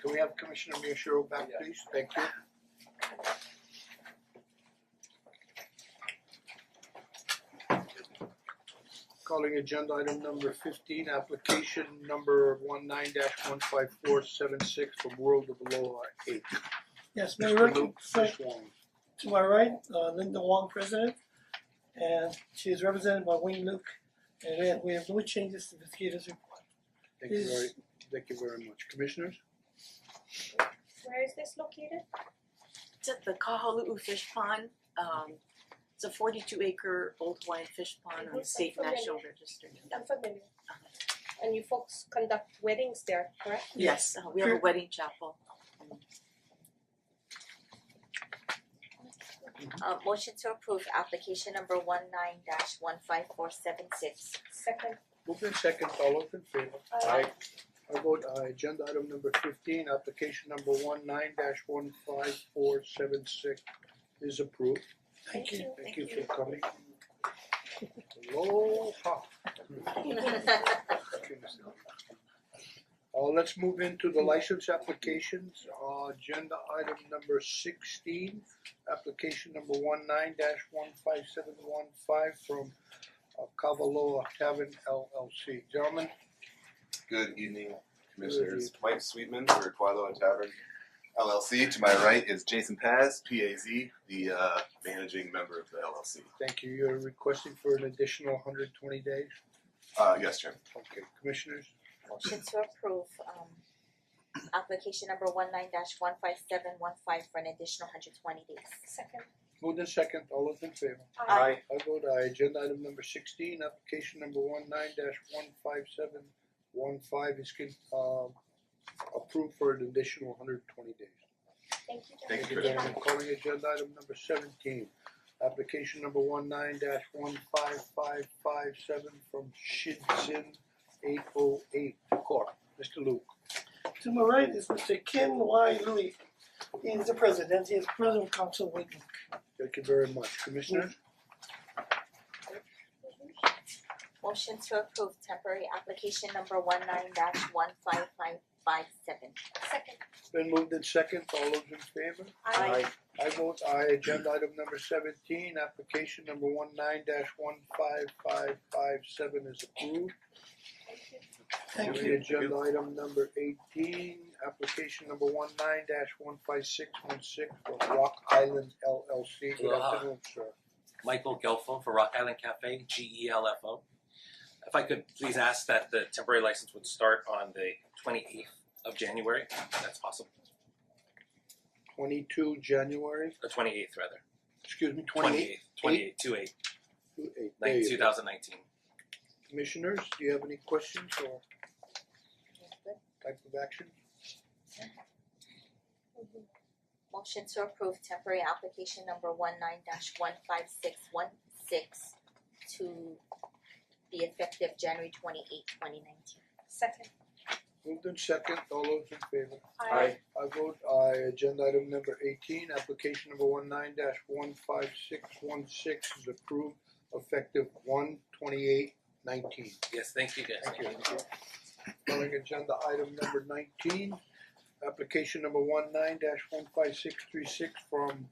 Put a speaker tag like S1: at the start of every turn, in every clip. S1: Can we have Commissioner Miyashiro back, please? Thank you. Calling agenda item number fifteen, application number one nine dash one five four seven six from World of Aloha Eight.
S2: Yes, Mayor,
S1: Mr.
S2: to,
S1: Luke Fishwong.
S2: to my right, uh, Linda Wong, President, and she is represented by Wayne Luke. And then we have no changes to the Mosquito's report.
S1: Thank you
S2: Is-
S1: very, thank you very much. Commissioners?
S3: Where is this located?
S4: It's at the Kahaluu Fish Pond, um it's a forty two acre old Hawaiian fish pond on the
S3: Mhm.
S4: state national register.
S3: I'm familiar. And you folks conduct weddings there, correct?
S4: Yes, uh, we have a
S2: Sure.
S4: wedding chapel.
S5: Uh motion to approve application number one nine dash one five four seven six.
S3: Second,
S1: Moved in second, all those in favor?
S3: uh,
S1: I vote aye, agenda item number fifteen, application number one nine dash one five four seven six is approved.
S2: Thank you.
S1: Thank you for coming. Aloha. Uh let's move into the license applications, uh agenda item number sixteen, application number one nine dash one five seven one five from uh, Kavaloa Tavern LLC. Gentlemen,
S6: Good evening, Commissioners. Mike Sweetman for Quadlo Tavern LLC. To my right is Jason Paz, PAZ, the uh, managing member of the LLC.
S1: thank you, you're requesting for an additional hundred twenty days?
S6: Uh, yes, Chairman.
S1: Okay, commissioners,
S5: Motion to approve um application number one nine dash one five seven one five for an additional hundred twenty days.
S3: second,
S1: moved in second, all those in favor?
S3: uh,
S1: I vote aye, agenda item number sixteen, application number one nine dash one five seven one five is con- um approved for an additional hundred twenty days.
S3: uh, thank you.
S6: Thank you, Commissioner.
S1: gentlemen. Calling agenda item number seventeen, application number one nine dash one five five five seven from Shidzin eight oh eight Corp. Mister Luke,
S2: To my right is Mr. Ken Y. Louis. He is the president. He is president of council Wayne Luke.
S1: thank you very much, Commissioners.
S5: Motion to approve temporary application number one nine dash one five five five seven.
S3: Second,
S1: Been moved in second, all those in favor?
S3: uh,
S1: I vote aye, agenda item number seventeen, application number one nine dash one five five five seven is approved.
S3: thank you.
S2: Thank
S1: Calling
S2: you.
S1: Agenda item number eighteen, application number one nine dash one five six one six for Rock Island LLC, good
S7: Aloha.
S1: afternoon, sir.
S7: Michael Gelfo for Rock Island Cafe, G E L F O. If I could please ask that the temporary license would start on the twenty eighth of January, if that's possible,
S1: Twenty-two January,
S7: the twenty eighth rather.
S1: excuse me,
S7: Twenty
S1: twenty-eight,
S7: eighth, twenty eight, two eight,
S1: two-eight, there
S7: nine
S1: you
S7: two
S1: go.
S7: thousand nineteen.
S1: Commissioners, do you have any questions or type of action?
S3: Mhm.
S5: Motion to approve temporary application number one nine dash one five six one six to be effective January twenty eight, twenty nineteen.
S3: Second,
S1: Moved in second, all those in favor?
S3: uh,
S1: I vote aye, agenda item number eighteen, application number one nine dash one five six one six is approved effective one twenty-eight nineteen.
S7: Yes, thank you guys.
S1: Thank you. Calling agenda item number nineteen, application number one nine dash one five six three six from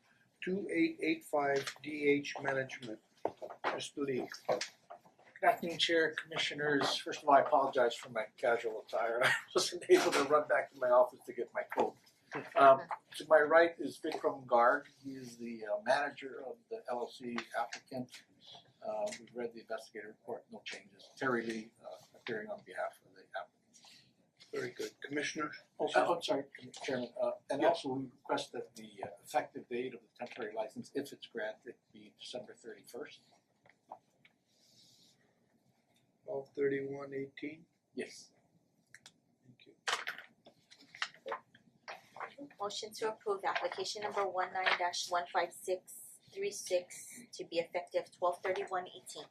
S1: two eight eight five D H Management. Mr. Lee,
S8: Good afternoon, Chair, Commissioners. First of all, I apologize for my casual attire. I wasn't able to run back to my office to get my coat. Um, to my right is Vikram Garg. He is the uh, manager of the LLC applicant. Uh, we've read the investigative report, no changes. Terry Lee, uh, appearing on behalf of the applicant.
S1: very good, Commissioner.
S8: Also, Oh, I'm sorry, Chairman, uh, and
S1: Yeah.
S8: also we request that the uh, effective date of the temporary license, if it's granted, be December thirty-first.
S1: Twelve thirty-one eighteen,
S8: Yes.
S1: thank you.
S5: Motion to approve application number one nine dash one five six three six to be effective twelve thirty one eighteen.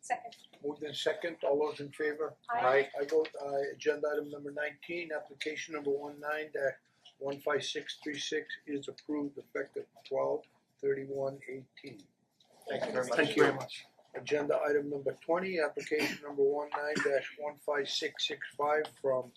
S3: second,
S1: Moved in second, all those in favor?
S3: uh,
S1: I vote aye, agenda item number nineteen, application number one nine dash one five six three six is approved effective twelve thirty-one eighteen.
S8: Thank you very much.
S2: Thank you very much.
S1: Agenda item number twenty, application number one nine dash one five six six five from